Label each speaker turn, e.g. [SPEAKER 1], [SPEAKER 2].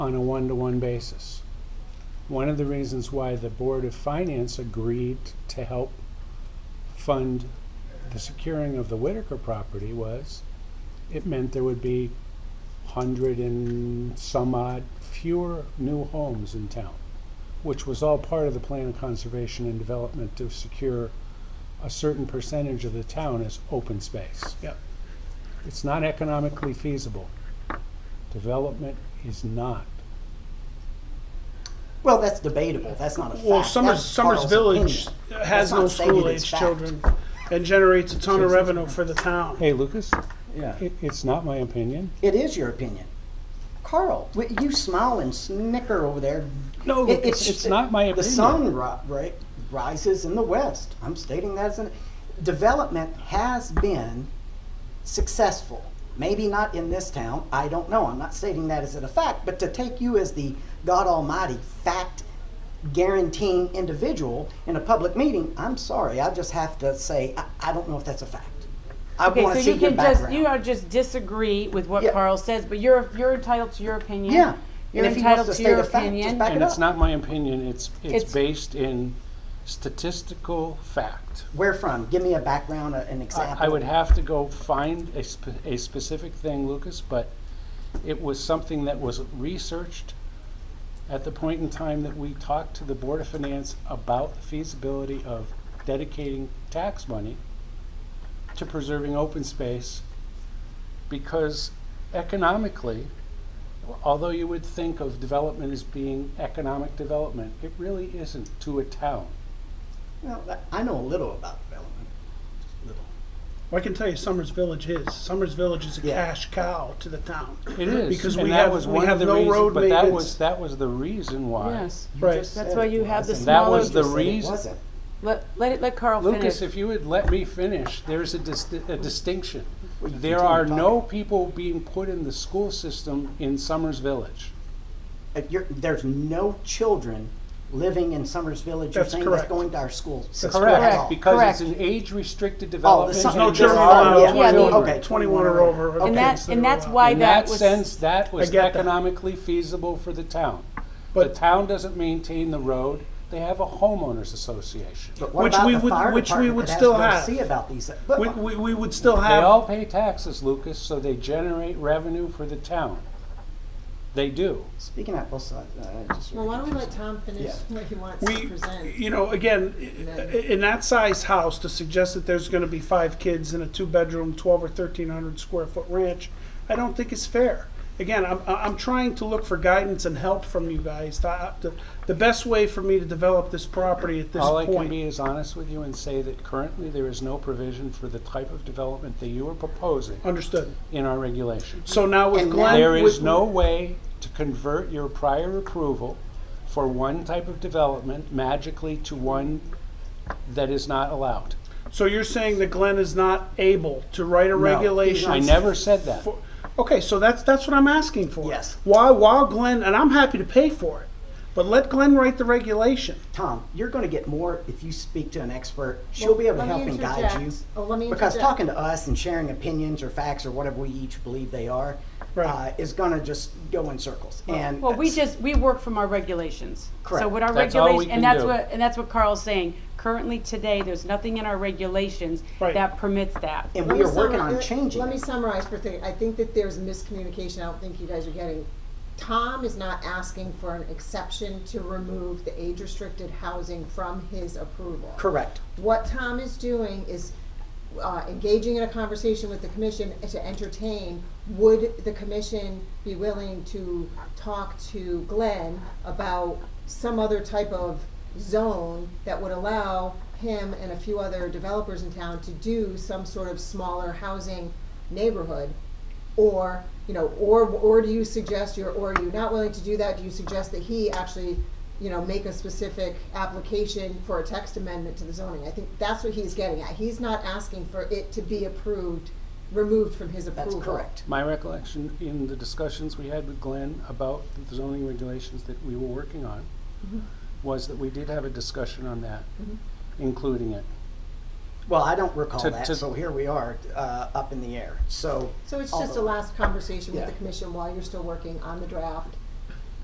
[SPEAKER 1] on a one-to-one basis. One of the reasons why the Board of Finance agreed to help fund the securing of the Whitaker property was it meant there would be hundred and some odd fewer new homes in town, which was all part of the plan of conservation and development to secure a certain percentage of the town as open space.
[SPEAKER 2] Yep.
[SPEAKER 1] It's not economically feasible. Development is not.
[SPEAKER 2] Well, that's debatable. That's not a fact.
[SPEAKER 3] Well, Summers,
[SPEAKER 2] That's
[SPEAKER 3] Summers
[SPEAKER 2] Carl's
[SPEAKER 3] Village
[SPEAKER 2] opinion.
[SPEAKER 3] has
[SPEAKER 2] That's not
[SPEAKER 3] no
[SPEAKER 2] stated
[SPEAKER 3] school
[SPEAKER 2] as
[SPEAKER 3] age
[SPEAKER 2] fact.
[SPEAKER 3] children and generates a ton of revenue for the town.
[SPEAKER 1] Hey, Lucas,
[SPEAKER 4] Yeah.
[SPEAKER 1] it, it's not my opinion.
[SPEAKER 2] It is your opinion. Carl, w- you smile and snicker over there.
[SPEAKER 1] No,
[SPEAKER 2] It-
[SPEAKER 1] Lucas, it's not my
[SPEAKER 2] The
[SPEAKER 1] opinion.
[SPEAKER 2] sun ri- ri- rises in the west. I'm stating that as an development has been successful. Maybe not in this town. I don't know. I'm not stating that as a fact, but to take you as the God Almighty fact guaranteeing individual in a public meeting, I'm sorry. I just have to say I, I don't know if that's a fact. I
[SPEAKER 5] Okay,
[SPEAKER 2] want
[SPEAKER 5] so
[SPEAKER 2] to see
[SPEAKER 5] you
[SPEAKER 2] your
[SPEAKER 5] can
[SPEAKER 2] background.
[SPEAKER 5] just, you know, just disagree with what
[SPEAKER 2] Yeah.
[SPEAKER 5] Carl says, but you're, you're entitled to your opinion.
[SPEAKER 2] Yeah.
[SPEAKER 5] You're
[SPEAKER 2] And if he wants
[SPEAKER 5] entitled
[SPEAKER 2] to
[SPEAKER 5] to
[SPEAKER 2] state
[SPEAKER 5] your
[SPEAKER 2] a fact, just
[SPEAKER 5] opinion.
[SPEAKER 2] back it
[SPEAKER 1] And it's
[SPEAKER 2] up.
[SPEAKER 1] not my opinion, it's, it's
[SPEAKER 5] It's-
[SPEAKER 1] based in statistical fact.
[SPEAKER 2] Where from? Give me a background, a- an
[SPEAKER 1] I-
[SPEAKER 2] example.
[SPEAKER 1] I would have to go find a, sp- a specific thing, Lucas, but it was something that was researched at the point in time that we talked to the Board of Finance about the feasibility of dedicating tax money to preserving open space because economically, although you would think of development as being economic development, it really isn't to a town.
[SPEAKER 2] Well, that- I know a little about development. Just a Little.
[SPEAKER 3] Well, I can tell you Summers Village is. Summers Village is a
[SPEAKER 2] Yeah.
[SPEAKER 3] cash cow to the town.
[SPEAKER 1] It is
[SPEAKER 3] Because
[SPEAKER 1] and
[SPEAKER 3] we
[SPEAKER 1] that
[SPEAKER 3] have-
[SPEAKER 1] was
[SPEAKER 3] we
[SPEAKER 1] one of
[SPEAKER 3] have
[SPEAKER 1] the
[SPEAKER 3] no
[SPEAKER 1] reasons-
[SPEAKER 3] road
[SPEAKER 1] But that
[SPEAKER 3] maintenance.
[SPEAKER 1] was that was the reason why.
[SPEAKER 5] Yes,
[SPEAKER 2] You
[SPEAKER 3] Right.
[SPEAKER 2] just
[SPEAKER 5] That's
[SPEAKER 2] said
[SPEAKER 5] why
[SPEAKER 2] it
[SPEAKER 5] you have the
[SPEAKER 2] wasn't.
[SPEAKER 1] That was
[SPEAKER 5] smaller,
[SPEAKER 1] the
[SPEAKER 2] Just said it
[SPEAKER 1] reason-
[SPEAKER 2] wasn't.
[SPEAKER 5] let, let it, let Carl finish.
[SPEAKER 1] Lucas, if you would let me finish, there's a, dis- a distinction.
[SPEAKER 2] Well, you
[SPEAKER 1] There
[SPEAKER 2] continue
[SPEAKER 1] are no people being put in the school system in Summers Village.
[SPEAKER 2] Uh, you're- there's no children living in Summers Village. You're
[SPEAKER 3] That's
[SPEAKER 2] saying
[SPEAKER 3] correct.
[SPEAKER 2] that's going to our schools.
[SPEAKER 3] That's
[SPEAKER 2] That's all.
[SPEAKER 3] Correct.
[SPEAKER 1] Because it's
[SPEAKER 5] correct.
[SPEAKER 1] an age-restricted
[SPEAKER 2] Oh, the
[SPEAKER 1] development.
[SPEAKER 2] Summers.
[SPEAKER 3] no
[SPEAKER 1] and
[SPEAKER 3] children
[SPEAKER 1] there are
[SPEAKER 3] allowed.
[SPEAKER 1] no
[SPEAKER 5] Yeah, I mean,
[SPEAKER 1] children.
[SPEAKER 2] okay.
[SPEAKER 3] 21 or over.
[SPEAKER 2] Okay.
[SPEAKER 5] And that, and that's why
[SPEAKER 1] In that
[SPEAKER 5] that was.
[SPEAKER 1] sense, that was
[SPEAKER 3] I get that.
[SPEAKER 1] economically feasible for the town. The
[SPEAKER 3] But-
[SPEAKER 1] town doesn't maintain the road, they have a homeowners association.
[SPEAKER 2] But what
[SPEAKER 3] Which
[SPEAKER 2] about
[SPEAKER 3] we
[SPEAKER 2] the
[SPEAKER 3] would-
[SPEAKER 2] fire
[SPEAKER 3] which we
[SPEAKER 2] department
[SPEAKER 3] would
[SPEAKER 2] that has
[SPEAKER 3] still
[SPEAKER 2] no
[SPEAKER 3] have.
[SPEAKER 2] See about these. But,
[SPEAKER 3] We, we, we would still
[SPEAKER 1] They all
[SPEAKER 3] have,
[SPEAKER 1] pay taxes, Lucas, so they generate revenue for the town. They do.
[SPEAKER 2] speaking of both sides, uh, just
[SPEAKER 6] Well, why don't we let Tom finish
[SPEAKER 2] Yeah.
[SPEAKER 6] what he wants to
[SPEAKER 3] we,
[SPEAKER 6] present?
[SPEAKER 3] you know, again, i- i- in that size house, to suggest that there's gonna be five kids in a two-bedroom, twelve or thirteen hundred square foot ranch, I don't think is fair. Again, I'm, I- I'm trying to look for guidance and help from you guys. The, the- the best way for me to develop this property at this
[SPEAKER 1] All I can
[SPEAKER 3] point.
[SPEAKER 1] be is honest with you and say that currently there is no provision for the type of development that you are proposing
[SPEAKER 3] Understood.
[SPEAKER 1] in our regulations.
[SPEAKER 3] So now with
[SPEAKER 2] And
[SPEAKER 3] Glenn.
[SPEAKER 1] There is
[SPEAKER 3] with-
[SPEAKER 1] no way to convert your prior approval for one type of development magically to one that is not allowed.
[SPEAKER 3] So you're saying that Glenn is not able to write a
[SPEAKER 2] he's
[SPEAKER 3] regulation?
[SPEAKER 1] I never said that.
[SPEAKER 3] for- okay, so that's that's what I'm asking for.
[SPEAKER 2] Yes.
[SPEAKER 3] Why, while Glenn, and I'm happy to pay for it, but let Glenn write the regulation.
[SPEAKER 2] Tom, you're going to get more if you speak to an expert. She'll be able to
[SPEAKER 6] Let me
[SPEAKER 2] help and guide
[SPEAKER 6] interject.
[SPEAKER 2] you.
[SPEAKER 6] Oh, let me
[SPEAKER 2] Because
[SPEAKER 6] interject.
[SPEAKER 2] talking to us and sharing opinions or facts or whatever we each believe they are
[SPEAKER 3] Right.
[SPEAKER 2] uh, is going to just go in circles. And
[SPEAKER 5] Well, we just, we work from our regulations.
[SPEAKER 2] Correct.
[SPEAKER 5] So what our
[SPEAKER 1] That's all we
[SPEAKER 5] regulation,
[SPEAKER 1] can
[SPEAKER 5] and that's
[SPEAKER 1] do.
[SPEAKER 5] what, and that's what Carl's saying. Currently today, there's nothing in our regulations
[SPEAKER 3] Right.
[SPEAKER 5] that permits that.
[SPEAKER 2] and
[SPEAKER 6] Let
[SPEAKER 2] we
[SPEAKER 6] me
[SPEAKER 2] are working
[SPEAKER 6] summar-
[SPEAKER 2] on
[SPEAKER 6] let-
[SPEAKER 2] changing.
[SPEAKER 6] Let me
[SPEAKER 2] it.
[SPEAKER 6] summarize for a thing. I think that there's miscommunication. I don't think you guys are getting. Tom is not asking for an exception to remove the age-restricted housing from his approval.
[SPEAKER 2] Correct.
[SPEAKER 6] What Tom is doing is uh, engaging in a conversation with the commission to entertain, would the commission be willing to talk to Glenn about some other type of zone that would allow him and a few other developers in town to do some sort of smaller housing neighborhood? Or, you know, or, or do you suggest you're, or are you not willing to do that? Do you suggest that he actually, you know, make a specific application for a text amendment to the zoning? I think that's what he's getting at. He's not asking for it to be approved, removed from his
[SPEAKER 2] That's
[SPEAKER 6] approval.
[SPEAKER 2] correct.
[SPEAKER 1] My recollection in the discussions we had with Glenn about the zoning regulations that we were working on was that we did have a discussion on that, including it.
[SPEAKER 2] Well, I don't recall
[SPEAKER 1] To-
[SPEAKER 2] that,
[SPEAKER 1] to-
[SPEAKER 2] so here we are uh, up in the air. So
[SPEAKER 6] So it's
[SPEAKER 2] All
[SPEAKER 6] just a
[SPEAKER 2] the-
[SPEAKER 6] last conversation with the
[SPEAKER 2] Yeah.
[SPEAKER 6] commission while you're still working on the draft